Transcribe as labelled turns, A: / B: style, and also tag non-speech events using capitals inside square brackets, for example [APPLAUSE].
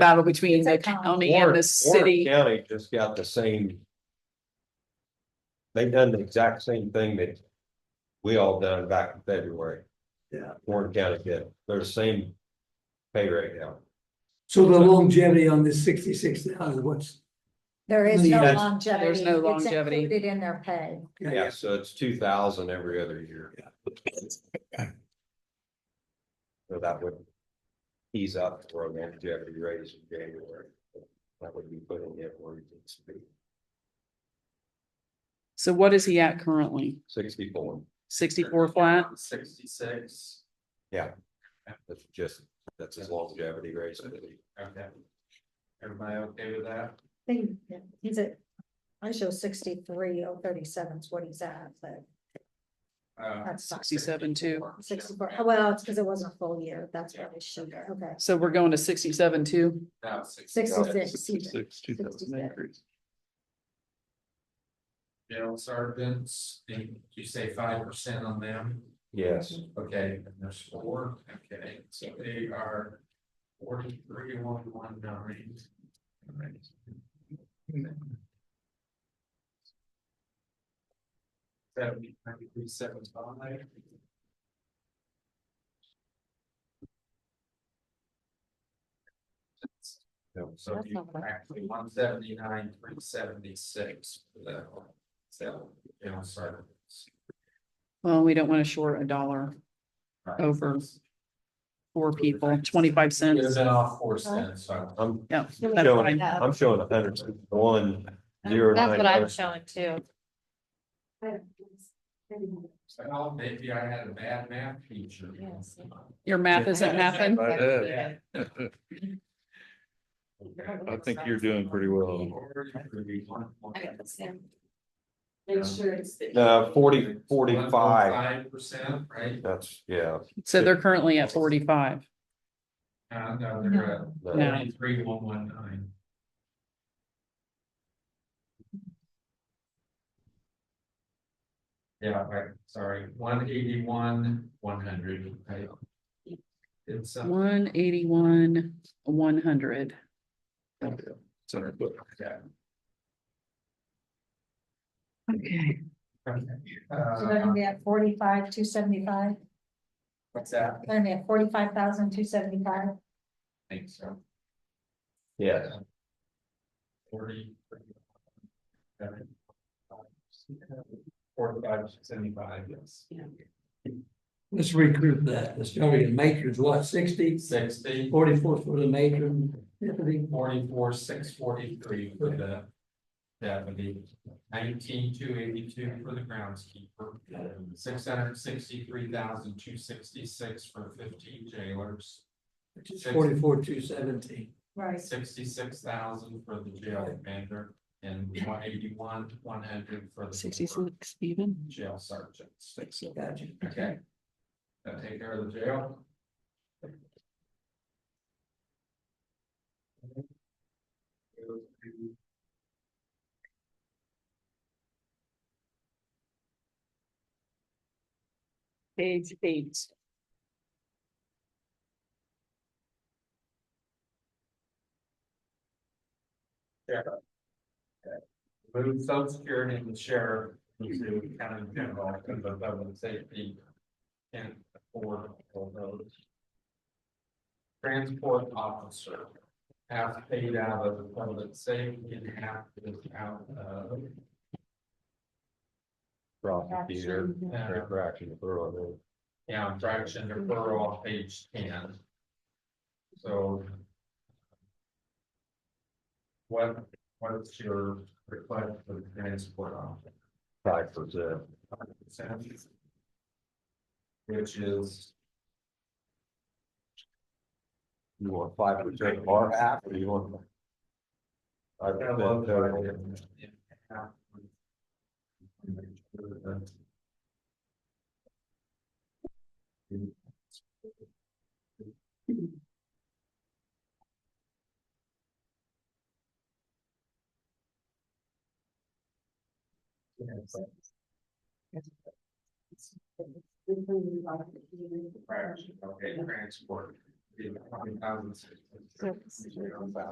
A: battle between
B: It's
A: the
B: a county.
A: county and the
C: Warren-
A: city.
C: Warren County just got the same. They've done the exact same thing that we all done back in February.
D: Yeah.
C: Warren County did, they're the same pay rate now.
D: So the longevity on this sixty-six thousand, what's?
B: There is no
C: There's-
B: longevity.
A: there's no
B: It's
A: longevity.
B: Included in their pay.
C: Yeah, so it's two thousand every other year. So that would ease up for a longevity raise in January. That would be putting it where it needs to be,
A: So what is he at currently?
C: sixty-four,
A: Sixty-four flat?
E: Sixty-six.
C: yeah. That's just, that's his longevity raise.
E: Okay. Everybody okay with that?
B: They- He's at, I show sixty-three, oh thirty-seven is what he's at, but
E: Uh,
B: that's not
A: 67 too.
B: sixty-four. oh, Well, it's because it wasn't a full year. That's why we should, okay.
A: So we're going to sixty-seven too?
E: Now, six,
B: Sixty-six. excuse me.
F: Sixty-six, two thousand
B: 66.
F: acres.
E: general sergeants, did you say five percent on them?
C: Yes.
E: Okay, and there's four, okay, so they are forty-three, one, one, nine. Seventy, ninety-three, seven, five. So you actually one seventy-nine, three seventy-six, so, you know, sorry.
A: Well, we don't want to short a dollar over for people, twenty-five
E: It's
A: cents.
E: been off four cents, so.
C: I'm
A: Yeah.
B: You're
A: that's
C: showing,
A: fine.
C: I'm showing a hundred sixty-one, zero nine.
G: showing too.
E: Well, "Oh, maybe I had a bad math teacher.
G: Yes.
A: Your math isn't mapping.
F: I did.
E: Yeah.
B: [LAUGHS]
F: I think you're doing pretty well.
G: Make sure it's.
F: Uh,
C: No, uh, forty, forty-five,
E: Five percent, right?
C: that's, yeah.
A: So they're currently at forty-five.
E: Uh, no, they're at
C: the-
A: No.
E: ninety-three, one, one, nine. Yeah, right, sorry, one eighty-one, one hundred, right? It's, uh,
A: One eighty-one, one hundred.
F: It's in our book.
E: yeah.
A: Okay.
B: So they're gonna
E: Uh,
B: be at forty-five, two seventy-five.
E: what's that?
B: They're gonna be at forty-five thousand, two seventy-five.
E: I think so.
C: Yeah,
E: Forty. Forty-five, seventy-five, yes.
D: Let's recruit that, let's tell you, matrons, what, 60? 44
E: Sixty,
D: for the matron, Tiffany,
E: forty-four, six forty-three for the deputy, nineteen, two eighty-two for the groundskeeper, six hundred sixty-three thousand, two sixty-six for fifteen jailers,
D: which is forty-four, two seventeen.
B: Right.
E: sixty-six thousand for the jail commander, and one eighty-one, one hundred for the
A: Sixty-six even?
E: jail sergeants.
D: Gotcha.
E: Okay. That take care of the jail?
A: Page eight.
E: Move social security and the sheriff to county general, because the public safety. Can't afford all those. Transport officer, half paid out of the public safety and half is out of.
C: prosecutor,
E: uh,
C: correction, throw it in.
E: Yeah, fraction deferral on page ten. So. What, what's your request for the transport office?
C: five percent.
E: Which is,
C: You want five percent of our half, or you want? I uh,
E: I love that. Fraction, okay, transport. $20,600.